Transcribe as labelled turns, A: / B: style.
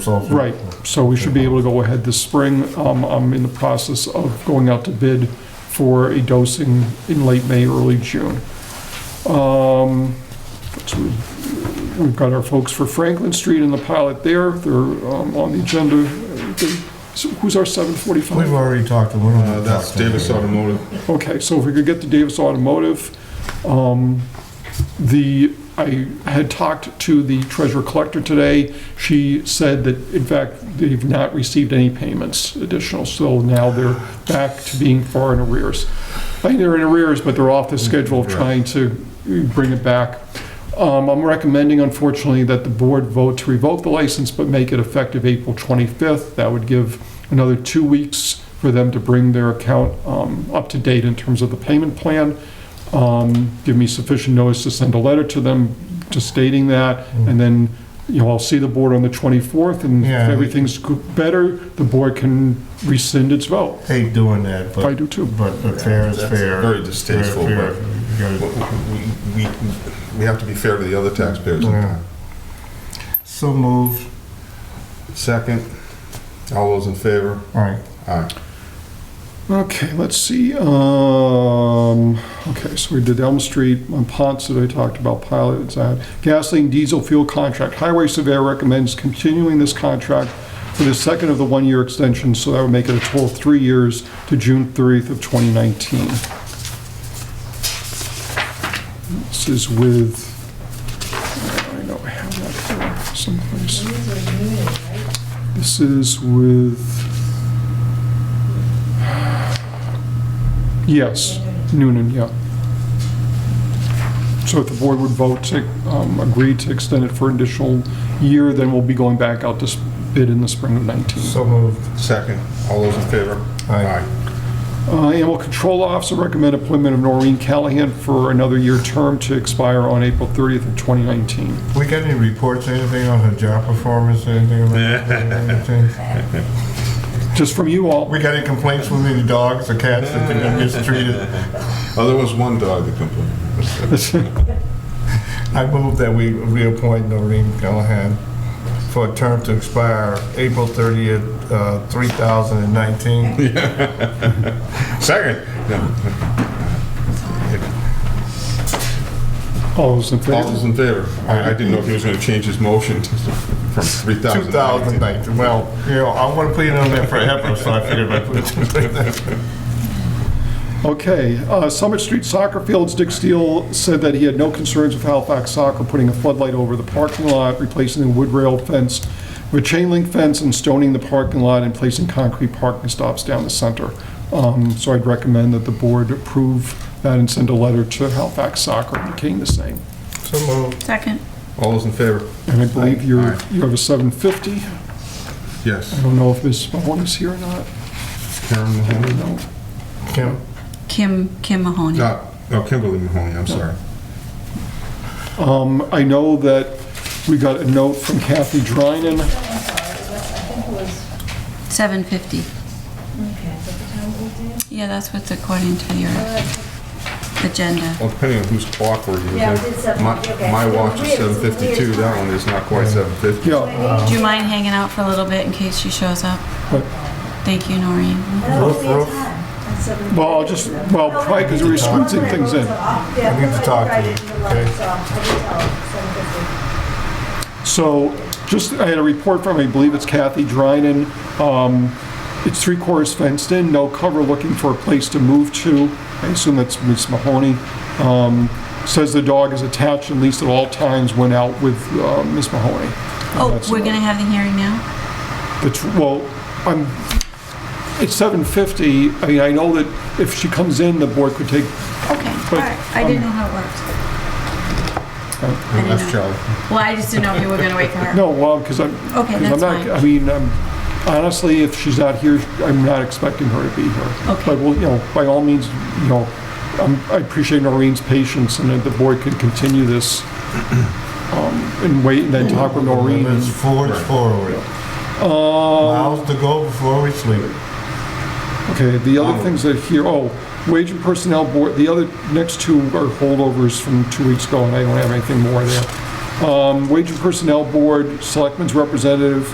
A: so.
B: Right, so we should be able to go ahead this spring. Um, I'm in the process of going out to bid for a dosing in late May, early June. Um, so We've got our folks for Franklin Street and the pilot there, they're um, on the agenda. They- so Who's our
A: We've
B: 745?
A: already talked to one of
C: Uh,
A: them.
C: That's Davis Automotive.
B: Okay, so if we could get to Davis Automotive, um, the, I had talked to the treasurer collector today. She said that, in fact, they've not received any payments additional, so now they're back to being far in arrears. I think they're in arrears, but they're off the schedule of trying to bring it back. Um, I'm recommending, unfortunately, that the board vote to revoke the license, but make it effective April 25th. That would give another two weeks for them to bring their account um, up to date in terms of the payment plan. Um, Give me sufficient notice to send a letter to them just stating that, and then, you know, I'll see the board on the 24th, and if
A: Yeah.
B: everything's go- better, the board can rescind its vote.
A: Hate doing that,
B: I
A: but,
B: do too.
A: but but fair is
C: That's
A: fair.
C: very distasteful,
A: Fair-
C: but-
A: fair. You
C: We,
A: gotta-
C: we, we have to be fair to the other taxpayers.
A: yeah. So moved,
C: Second, all those in favor?
A: all right,
C: Aye.
B: Okay, let's see, um, okay, so we did Elm Street, on Ponce that I talked about, pilot, it's out. Gasoline diesel fuel contract, Highway Surveyor recommends continuing this contract for the second of the one-year extension, so that would make it a total of three years to June 30th of 2019. This is with, I know I have that here someplace. This is with... Yes, Noonan, yeah. So if the board would vote to um, agree to extend it for an additional year, then we'll be going back out to s- bid in the spring of 19.
A: so moved,
C: Second, all those in favor?
A: Aye.
B: Uh, Animal Control Officer recommend appointment of Noreen Callahan for another year term to expire on April 30th of 2019.
A: we got any reports, anything on her job performance, anything about anything?
B: Just from you all,
A: We got any complaints with any dogs or cats that they're gonna mistreated?
C: Oh, there was one dog that complained.
A: I move that we reappoint Noreen Callahan for a term to expire April 30th, uh, 2019.
C: Second, no,
B: all those in
C: all those
B: favor?
C: in favor? I, I didn't know if he was gonna change his motion to- from three thousand.
A: 2019, well, you know, I want to put it on there for forever, so I figured I'd put it there.
B: Okay, uh, Summit Street Soccer Fields, Dick Steele said that he had no concerns with Halifax Soccer putting a floodlight over the parking lot, replacing the wood rail fence with chain link fence and stoning the parking lot and placing concrete parking stops down the center. Um, So I'd recommend that the board approve that and send a letter to Halifax Soccer indicating the same.
A: So moved.
D: Second.
C: All those in favor?
B: And I believe you're,
C: Aye.
B: you have a 750. I
C: Yes.
B: don't know if Ms. Mahone is here or not.
C: Karen
B: I
C: Mahoney?
B: don't know.
A: Kim,
D: Kim, Kim Mahoney.
C: No, Uh, no, Kimberly Mahoney, I'm sorry.
B: Um, I know that we got a note from Kathy Drynan
D: 750. Yeah, that's what's according to your agenda.
B: Uh-huh.
C: Well, depending on whose clock we're using.
E: Yeah, it's seven-
C: My-
E: okay.
C: My watch is
E: It's weird,
C: seven
E: it's a weird
C: fifty-two, that
E: time.
C: one is not quite seven fifty.
B: Yeah,
D: Do you mind hanging out for a little bit in case she shows up?
B: Right.
D: Thank you, Noreen.
A: Roof, roof.
B: well, I'll just, well, probably because we're squeezing things in.
E: I
A: need to talk to you, okay?
B: So just, I had a report from, I believe it's Kathy Drynan. Um, It's three quarters fenced in, no cover, looking for a place to move to. I assume that's Ms. Mahoney. Um, Says the dog is attached at least at all times when out with uh, Ms. Mahoney.
D: Oh,
B: That's-
D: we're going to have the hearing now?
B: The tw- Well, I'm, it's 7:50. I mean, I know that if she comes in, the board could take,
D: Okay, all right. I
B: um,
D: didn't know how it worked.
C: And that's Charlie.
D: Well, I just didn't know if you were going to wait for her.
B: oh, no, well, because I'm,
D: Okay,
B: Because I'm
D: that's
B: not, uh,
D: fine.
B: I mean, I'm- honestly, if she's not here, I'm not expecting her to be here.
D: Okay.
B: But, well, you know, by all means, you know, um, I appreciate Noreen's patience and that the board can continue this um, and wait and then talk with Noreen.
A: Limits forwards, forward. Miles to go before we sleep.
B: Okay, the other things that here, oh, wage and personnel board, the other, next two are holdovers from two weeks ago, and I don't have anything more there. Um, Wage and personnel board, selectmen's representative,